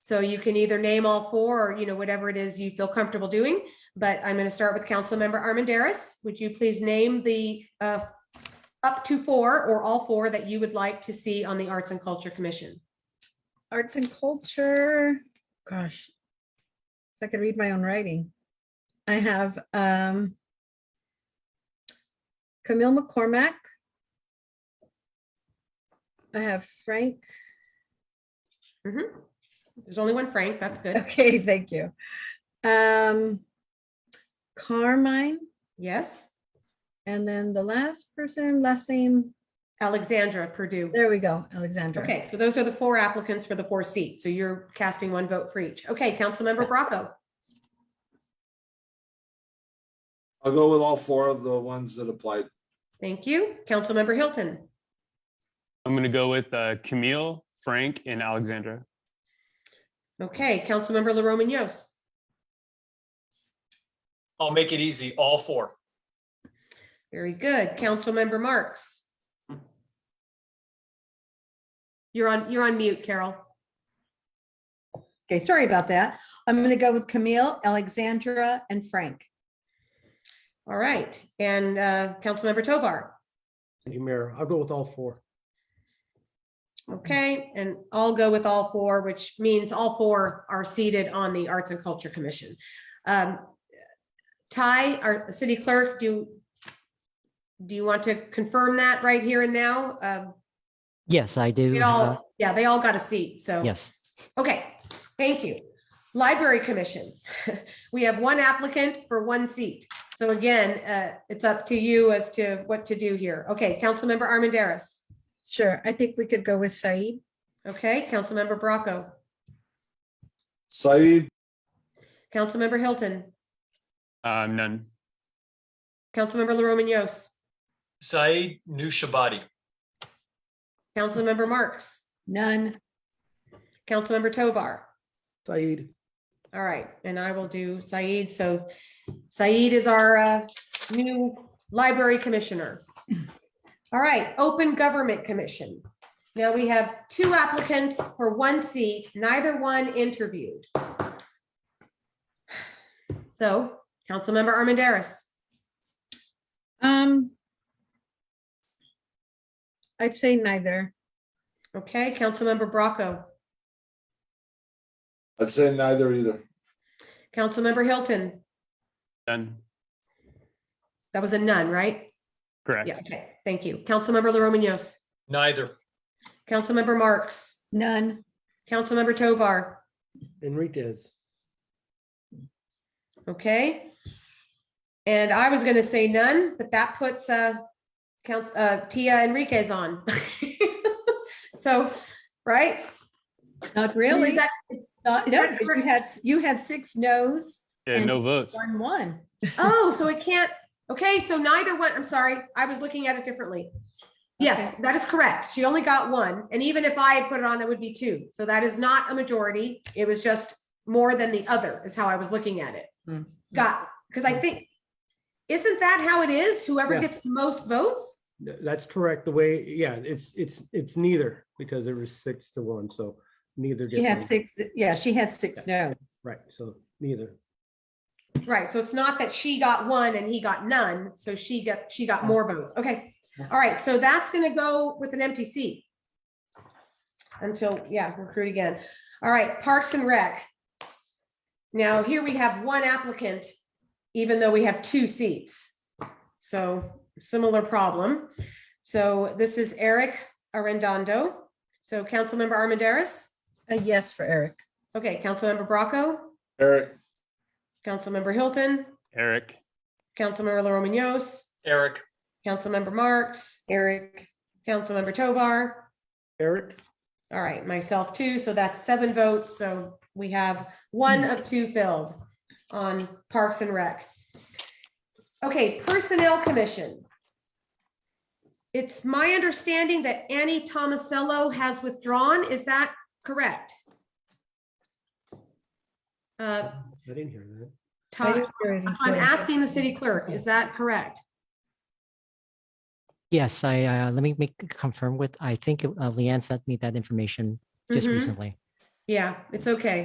So you can either name all four or, you know, whatever it is you feel comfortable doing. But I'm going to start with Councilmember Armandaris. Would you please name the uh, up to four or all four that you would like to see on the Arts and Culture Commission? Arts and culture, gosh. If I could read my own writing. I have um Camille McCormack. I have Frank. Mhm. There's only one Frank. That's good. Okay, thank you. Um Carmine, Yes. and then the last person, last name, Alexandra Purdue. there we go, Alexandra. Okay, so those are the four applicants for the four seats. So you're casting one vote for each. Okay, Councilmember Bracco. I'll go with all four of the ones that applied. Thank you. Councilmember Hilton. I'm gonna go with uh, Camille, Frank, and Alexandra. Okay, Councilmember La Romanios. I'll make it easy, all four. Very good. Councilmember Marks. You're on, you're on mute, Carol. Okay, sorry about that. I'm going to go with Camille, Alexandra, and Frank. All right. And uh, Councilmember Tovar. Thank you, Mayor. I'll go with all four. Okay, and I'll go with all four, which means all four are seated on the Arts and Culture Commission. Um, Ty, our city clerk, do, do you want to confirm that right here and now? Um, Yes, I do. It have- all, yeah, they all got a seat, so. Yes, Okay, thank you. Library Commission, we have one applicant for one seat. So again, uh, it's up to you as to what to do here. Okay, Councilmember Armandaris. Sure, I think we could go with Said. Okay, Councilmember Bracco, Saeed, Councilmember Hilton, Um, none. Councilmember LaRomanos, Saeed Nushabadi, Councilmember Marks, None. Councilmember Tovar. Said, All right, and I will do Said. So Said is our uh, new library commissioner. All right, Open Government Commission. Now we have two applicants for one seat, neither one interviewed. So Councilmember Armandaris, Um I'd say neither. okay, Councilmember Bracco, I'd say neither either. Councilmember Hilton, None. that was a none, right? Correct. Yeah, okay, thank you. Councilmember LaRomanos, neither. Councilmember Marks, None. Councilmember Tovar. Enriquez, Okay. And I was gonna say none, but that puts uh counts uh Tia Enriquez on. So, right? Not I mean, really. is that- Not- is no, that You correct? had, you had six no's, Yeah, no votes. one, one. Oh, so it can't, okay, so neither one, I'm sorry, I was looking at it differently. Yes, that is correct. She only got one, and even if I had put it on, that would be two. So that is not a majority. It was just more than the other is how I was looking at it. Hmm. Got, because I think, isn't that how it is? Whoever Yeah. gets the most votes? Th- that's correct. The way, yeah, it's, it's, it's neither because there was six to one, so neither She had gets. on. six, yeah, she had six no's. Right, so neither. Right, so it's not that she got one and he got none, so she got, she got more votes, okay. All right, so that's gonna go with an empty seat. Until, yeah, recruit again. All right, Parks and Rec. Now, here we have one applicant, even though we have two seats. So similar problem. So this is Eric Arredondo. So Councilmember Armandaris, A yes for Eric. okay, Councilmember Bracco, Eric, Councilmember Hilton, Eric. Councilmember La Romanos, Eric, Councilmember Marks, Eric, Councilmember Tovar, Eric, all right, myself too, so that's seven votes, so we have one of two filled on Parks and Rec. Okay, Personnel Commission. It's my understanding that Annie Tomasello has withdrawn, is that correct? Uh, I didn't hear I that. Todd, didn't hear anything. I'm asking the city clerk, is that correct? yes, I, uh, let me make, confirm with, I think uh, Leanne sent me that information just Mhm. recently. Yeah, it's okay.